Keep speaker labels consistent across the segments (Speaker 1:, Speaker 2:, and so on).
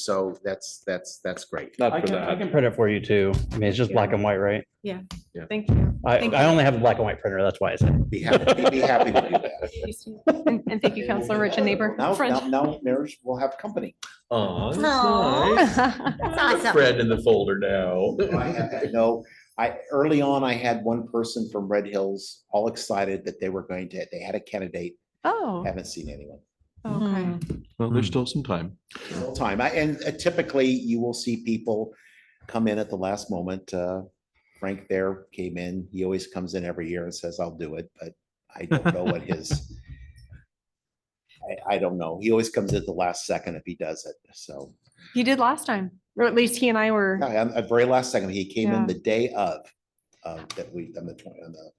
Speaker 1: So that's, that's, that's great.
Speaker 2: Not
Speaker 3: I
Speaker 2: for
Speaker 3: can- I
Speaker 2: that.
Speaker 3: can-
Speaker 4: printer for you too. I mean, it's just black and white, right?
Speaker 5: Thank you.
Speaker 4: I,
Speaker 5: Thank
Speaker 4: I
Speaker 5: you.
Speaker 4: only have a black and white printer. That's why I said.
Speaker 1: Be happy, be happy to do that.
Speaker 5: And and thank you, Counselor Rich and neighbor.
Speaker 1: Now,
Speaker 5: friend.
Speaker 1: now, now marriage will have company.
Speaker 2: Aw, that's
Speaker 6: Aw.
Speaker 2: nice.
Speaker 6: That's
Speaker 2: I have
Speaker 6: awesome.
Speaker 2: Fred in the folder now.
Speaker 1: I had- No, I, early on, I had one person from Red Hills all excited that they were going to, they had a candidate,
Speaker 5: Oh,
Speaker 1: haven't seen anyone.
Speaker 5: okay.
Speaker 2: Well, there's still some time.
Speaker 1: All Time, I- and uh, typically you will see people come in at the last moment. Uh, Frank there came in, he always comes in every year and says, I'll do it, but I don't know what his. I, I don't know, he always comes at the last second if he does it, so.
Speaker 5: He did last time, or at least he and I were,
Speaker 1: Yeah, and at very last second, he came in
Speaker 5: Yeah.
Speaker 1: the day of, um, that we, on the twenty, on the,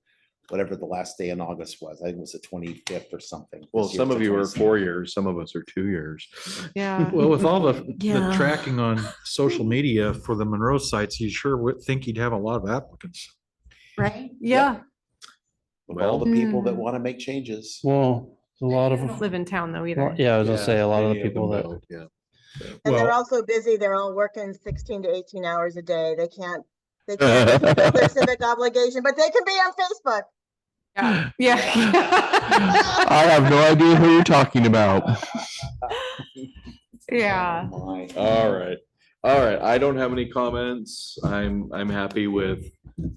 Speaker 1: whatever the last day in August was, I think it was the twenty-fifth or something.
Speaker 2: Well,
Speaker 1: This year
Speaker 2: some
Speaker 1: it's
Speaker 2: of
Speaker 1: the
Speaker 2: you are
Speaker 1: 22nd.
Speaker 2: four years, some of us are two years.
Speaker 5: yeah.
Speaker 7: Well, with all the, the
Speaker 6: Yeah.
Speaker 7: tracking on social media for the Monroe sites, you sure would think you'd have a lot of applicants.
Speaker 6: Right?
Speaker 5: Yeah,
Speaker 1: With all the
Speaker 5: Well-
Speaker 1: people that
Speaker 5: Mm.
Speaker 1: want to make changes.
Speaker 4: Well, a lot
Speaker 5: I don't
Speaker 4: of,
Speaker 5: live in town though either.
Speaker 4: yeah, I was gonna say a lot of the
Speaker 2: Many
Speaker 4: people
Speaker 2: them
Speaker 4: that,
Speaker 2: don't, Yeah.
Speaker 8: And they're
Speaker 7: Well-
Speaker 8: all so busy, they're all working sixteen to eighteen hours a day. They can't, they can't fulfill their civic obligation, but they can be on Facebook.
Speaker 5: Yeah. Yeah.
Speaker 2: I have no idea who you're talking about.
Speaker 5: Yeah.
Speaker 1: Oh, my.
Speaker 2: All right. All right. I don't have any comments. I'm, I'm happy with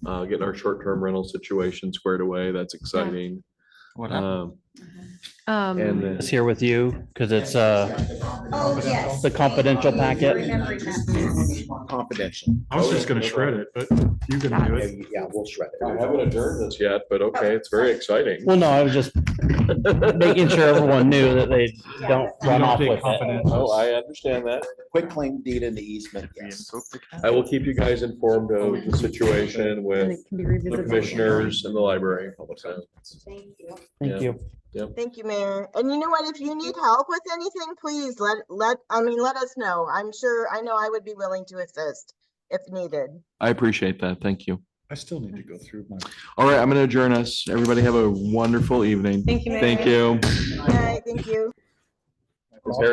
Speaker 2: uh, getting our short-term rental situation squared away. That's exciting. Um, And
Speaker 5: Um,
Speaker 2: then
Speaker 4: it's here with you because it's, uh,
Speaker 6: Oh, yes.
Speaker 4: The confidential packet.
Speaker 6: Remembering that.
Speaker 1: Confidential.
Speaker 7: I was just gonna shred it, but you can do
Speaker 1: Yeah,
Speaker 7: it.
Speaker 1: yeah, we'll shred
Speaker 2: we
Speaker 1: it.
Speaker 2: haven't adjourned this yet, but okay, it's very exciting.
Speaker 4: well, no, I was just making sure everyone knew that they don't
Speaker 7: You
Speaker 4: run
Speaker 7: don't
Speaker 4: off
Speaker 7: take
Speaker 4: with it.
Speaker 7: confidential.
Speaker 2: Oh, I understand that.
Speaker 1: Quick claim deed in the easement, yes.
Speaker 2: I will keep you guys informed of the situation
Speaker 5: and
Speaker 2: with
Speaker 5: it can be
Speaker 2: the
Speaker 5: revisited.
Speaker 2: commissioners and the library.
Speaker 6: Thank you.
Speaker 4: Thank you.
Speaker 8: Thank you, Mayor. And you know what? If you need help with anything, please let, let, I mean, let us know. I'm sure, I know I would be willing to assist if needed.
Speaker 2: I appreciate that. Thank you.
Speaker 7: I still need to go through my.
Speaker 2: All right, I'm going to adjourn us. Everybody have a wonderful evening.
Speaker 5: Thank you. Mayor.
Speaker 2: Thank you.
Speaker 8: Okay, thank you.
Speaker 2: Is there